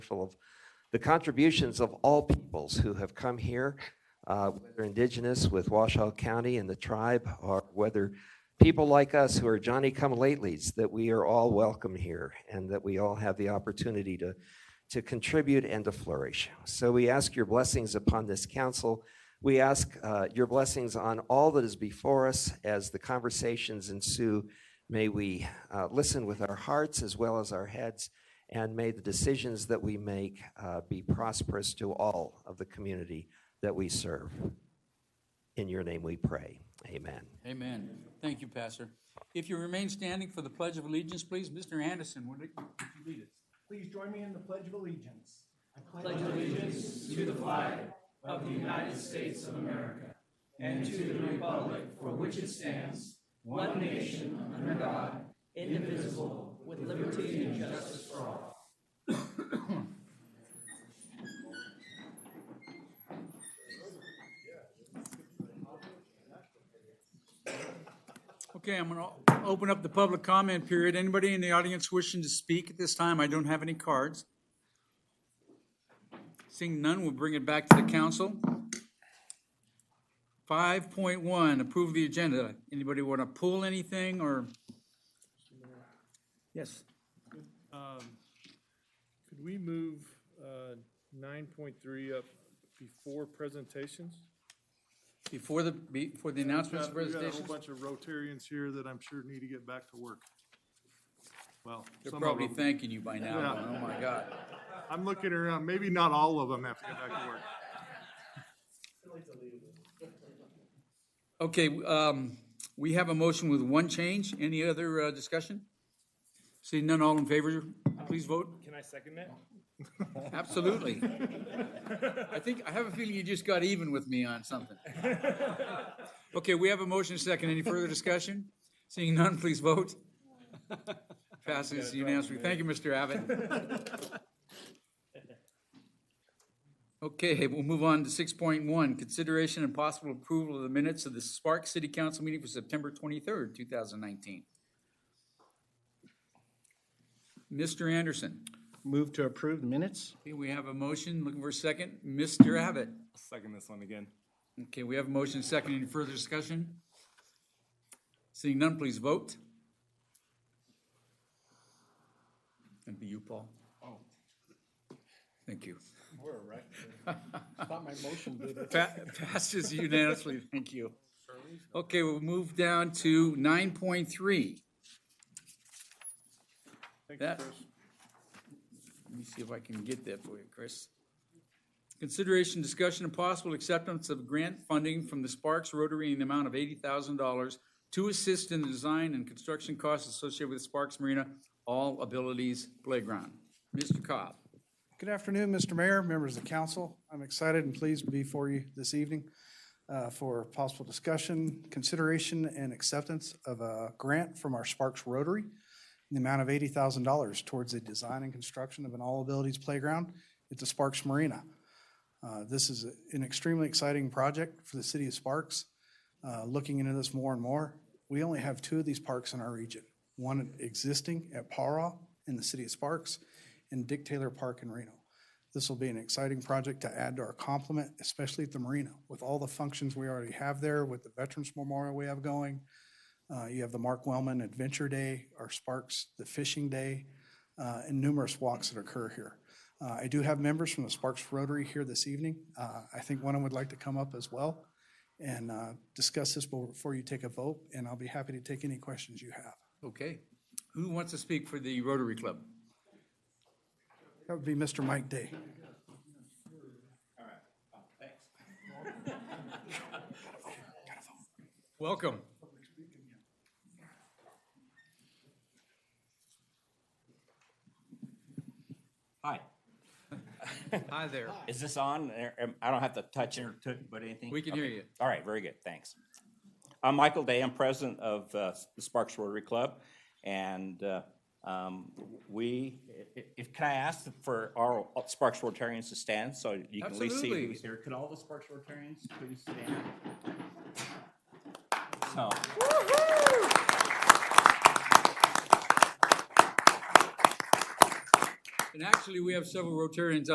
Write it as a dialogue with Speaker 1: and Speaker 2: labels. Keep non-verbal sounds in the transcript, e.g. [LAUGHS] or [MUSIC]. Speaker 1: full of the contributions of all peoples who have come here, uh, whether indigenous with Washoe County and the tribe, or whether people like us who are Johnny come latelys, that we are all welcome here and that we all have the opportunity to, to contribute and to flourish. So we ask your blessings upon this council. We ask uh, your blessings on all that is before us as the conversations ensue. May we uh, listen with our hearts as well as our heads and may the decisions that we make uh, be prosperous to all of the community that we serve. In your name we pray. Amen.
Speaker 2: Amen. Thank you, Pastor. If you remain standing for the Pledge of Allegiance, please, Mr. Anderson, would you would you lead us?
Speaker 3: Please join me in the Pledge of Allegiance.
Speaker 2: Okay, I'm going to open up the public comment period. Anybody in the audience wishing to speak at this time? I don't have any cards. Seeing none, we'll bring it back to the council. 5.1, approve the agenda. Anybody want to pull anything or? Yes.
Speaker 4: Um, Could we move uh, nine point three up before presentations?
Speaker 2: Before the, before the announcements
Speaker 4: Got-
Speaker 2: and
Speaker 4: We got a whole
Speaker 2: presentations?
Speaker 4: bunch of Rotarians here that I'm sure need to get back to work. Well,
Speaker 2: They're
Speaker 4: some of
Speaker 2: probably
Speaker 4: them.
Speaker 2: thanking you by now.
Speaker 4: Yeah.
Speaker 2: Oh, my God.
Speaker 4: I'm looking around, maybe not all of them have to get back to work.
Speaker 2: Okay, um, we have a motion with one change. Any other uh, discussion? Seeing none, all in favor, please vote.
Speaker 4: Can I second that? [LAUGHS]
Speaker 2: Absolutely. I think, I have a feeling you just got even with me on something. Okay, we have a motion second. Any further discussion? Seeing none, please vote. Passes unanimously. Thank you, Mr. Abbott. Okay, we'll move on to six point one, consideration and possible approval of the minutes of the Spark City Council meeting for September twenty-third, two thousand nineteen. Mr. Anderson,
Speaker 5: Move to approve the minutes?
Speaker 2: okay, we have a motion, looking for a second. Mr. Abbott?
Speaker 6: Second this one again.
Speaker 2: Okay, we have a motion second. Any further discussion? Seeing none, please vote. And be you, Paul. Oh. Thank you.
Speaker 5: Oh. We're right. Thought my motion did it.
Speaker 2: Pa- Passes unanimously. Thank you. Okay, we'll move down to nine point three.
Speaker 4: Thank you,
Speaker 2: That-
Speaker 4: Chris.
Speaker 2: Let me see if I can get that for you, Chris. Consideration, discussion, and possible acceptance of grant funding from the Sparks Rotary in the amount of eighty thousand dollars to assist in the design and construction costs associated with Sparks Marina All Abilities Playground. Mr. Cobb.
Speaker 7: Good afternoon, Mr. Mayor, members of the council. I'm excited and pleased to be before you this evening uh, for possible discussion, consideration, and acceptance of a grant from our Sparks Rotary in the amount of $80,000 towards the design and construction of an all-abilities playground at the Sparks Marina. Uh, This is an extremely exciting project for the city of Sparks. Uh, Looking into this more and more, we only have two of these parks in our region. One existing at Para in the city of Sparks and Dick Taylor Park in Reno. This will be an exciting project to add to our complement, especially at the marina, with all the functions we already have there, with the Veterans Memorial we have going. Uh, You have the Mark Wellman Adventure Day, our Sparks, the Fishing Day, uh, and numerous walks that occur here. Uh, I do have members from the Sparks Rotary here this evening. Uh, I think one of them would like to come up as well and uh, discuss this before you take a vote, and I'll be happy to take any questions you have.
Speaker 2: Okay. Who wants to speak for the Rotary Club?
Speaker 7: That would be Mr. Mike Day.
Speaker 2: Welcome.
Speaker 8: Hi,
Speaker 2: Hi there.
Speaker 8: is this on? Or, um, I don't have to touch it or to- but anything?
Speaker 2: We can
Speaker 8: Okay.
Speaker 2: hear you.
Speaker 8: All right, very good, thanks. I'm Michael Day, I'm president of uh, the Sparks Rotary Club, and uh, um, we, i- if, can I ask for our Sparks Rotarians to stand so you can at least see
Speaker 2: Absolutely.
Speaker 8: who's here? Could all the Sparks Rotarians please stand? So.
Speaker 2: And And actually, we have several Rotarians up